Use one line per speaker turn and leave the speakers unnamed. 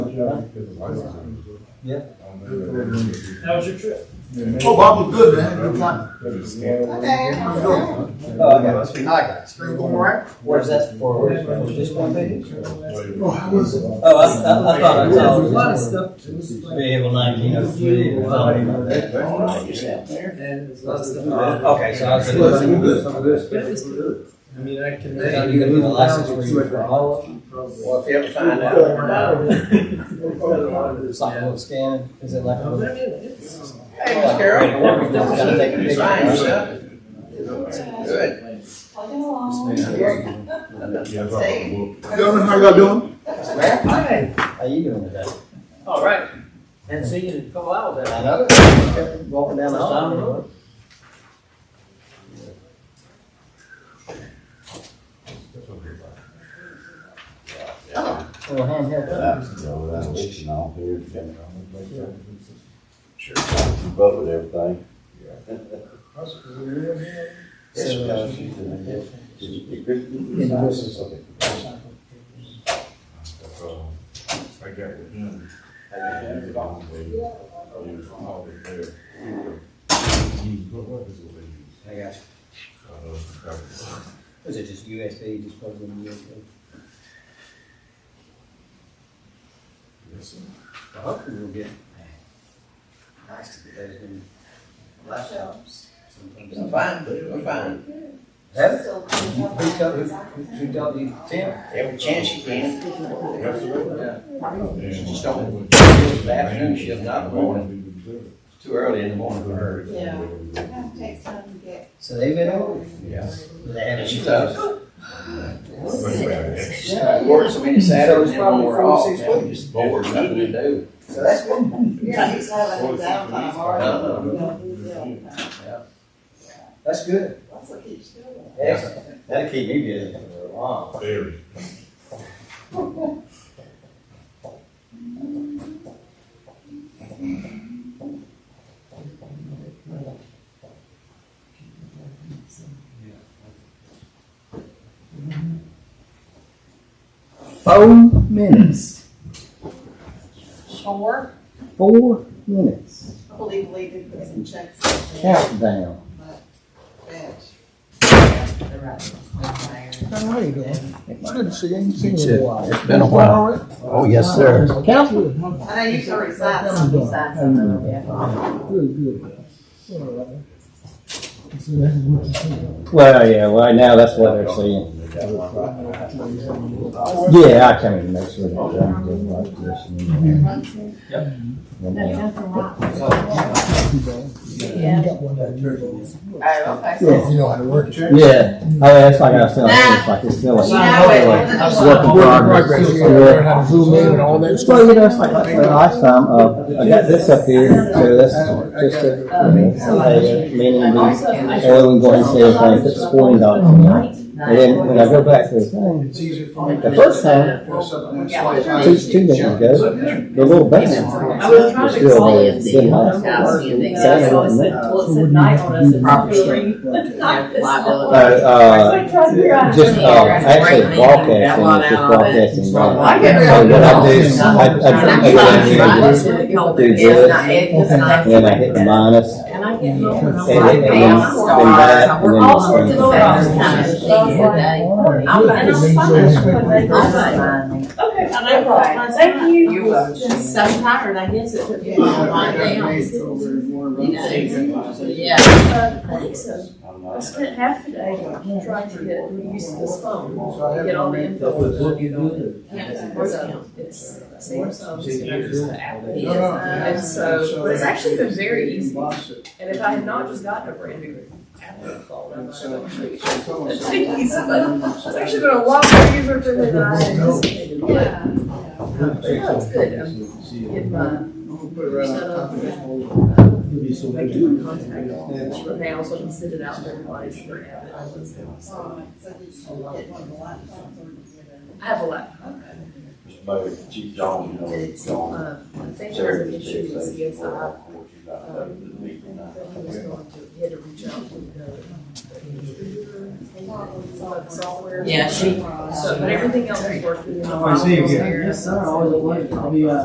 Yeah.
How was your trip?
Oh, Bob was good, man. Good time. How you
Okay.
doing?
Oh, I got it.
Everything going all right?
Where's that for? Where's for just one page?
Oh, how was it?
Oh, I, I, I thought I
Uh, There's a
saw
lot of stuff, it was like,
vehicle nineteen oh three or something.
and there's lots of stuff.
Okay, so I was.
But it was good. I mean, I can.
Are you gonna do the license for you for all of them?
Probably.
if you ever find out. or not, It's like a little scan, is it like?
I mean, it's.
Hey, Carol. Gotta take a picture.
Good. Plugging along.
Gentlemen, how y'all doing?
Hi.
How you doing today?
All right. And see you in a couple hours.
I know. Kept Walking down the
Down the
hall.
road.
Little handheld. phone.
keep up with everything.
So, uh, I got you. Was it just USB, just plugged in USB? I hope we will get. Nice to be there.
I'm
Sometimes.
fine, I'm fine.
That's, who told, who, who told you, Tim?
Every chance you can. Just don't, afternoon shift, not the morning. It's too early in the morning for her.
Yeah. It takes time to get.
So they've been over.
Yeah.
They haven't.
And she's up.
Six.
She's not working so many Saturdays
So it's
and when
probably
we're
four,
off,
six
man, we're just bored, nothing to do.
So that's good.
Yeah, he's having a downtime already.
Uh-uh.
You know, he's doing that.
That's good.
That's what he's doing.
Excellent. That'll keep me busy for a while. Four minutes.
Sure,
Four minutes.
I believe Lee did put some checks in there,
Countdown.
but that's. The right one there.
How are you doing? Good to see you. I ain't seen you in a while.
It's been a while. Oh, yes, sir.
Council.
I know you can recite some, recite some of them, yeah.
Well, yeah, right now, that's what they're seeing. Yeah, I can't even make sure. that I'm good like this and then-
That's nothing wrong. Oh, okay.
Yeah.
You know how to work.
Yeah, oh, yeah, it's like I was telling you, it's like it's still a.
You know it.
Work in progress. Yeah.
how to zoom in and all that
Well, you know, it's like, like last time, uh, I got this up here, so that's just a, a meeting,
And
and
also, I
then we go and say, okay, put the sporting dogs in there. And then when I go back to the thing,
It's easier for me.
the first time, two, two minutes ago, the little band
I was trying
was
to
still there,
explain it,
didn't last.
I saw it said, well, it said night on us, and
Uh, uh, just, uh, actually broadcasting, it's just broadcasting. So what I do, is I, I, I, I do this, and then I hit the minus,
And I get home and I'm
and
like,
it, and then,
man,
then that, and then.
all sorts
and
of
then-
things kind of I'm like, and I'm fine. I'm like, okay, and I'm fine, thank you.
You are.
Just so tired, I guess it took me a while to wind down. Yeah. I think so. I spent half the day trying to get used to this phone, get all the info. Yeah, it's a voice count. It's same songs. And so, but it's actually been very easy. And if I had not just gotten a brand new tablet phone, I might have actually. It's been easy, but it's actually been a lot more easier than I anticipated. But
Yeah.
yeah, it's good. I'm getting my, making my contact now so I can send it out to everybody. so they have it.
So he's getting one of the laptops or he's getting-
I have a lot.
Chief John, you know, it's John.
Uh, I think there's an
Sheriff's
issue
Chief,
with
so he's
CSI.
not working
I
out.
think he was going to, he had to reach out to the the software.
Yeah, she-
So, but everything else is working.
Oh, Uh, I see you.
Yes,
Yes, sir, always a wonder. I'll be, uh,